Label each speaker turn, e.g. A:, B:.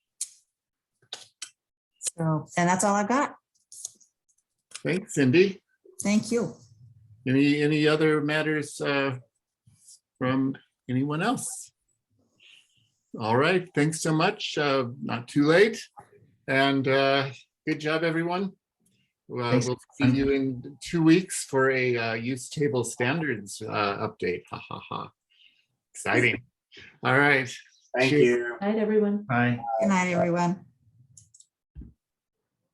A: So, and that's all I've got.
B: Okay, Cindy,
A: Thank you.
B: any, any other matters uh, from anyone else? All right, thanks so much. uh, Not too late. And uh, good job, everyone. Well,
C: Thanks.
B: We'll see you in two weeks for a uh, use table standards uh, update. Ha ha ha. Exciting. All right.
D: Thank
B: Cheers.
D: you.
E: Night, everyone.
C: Bye.
A: Good night, everyone.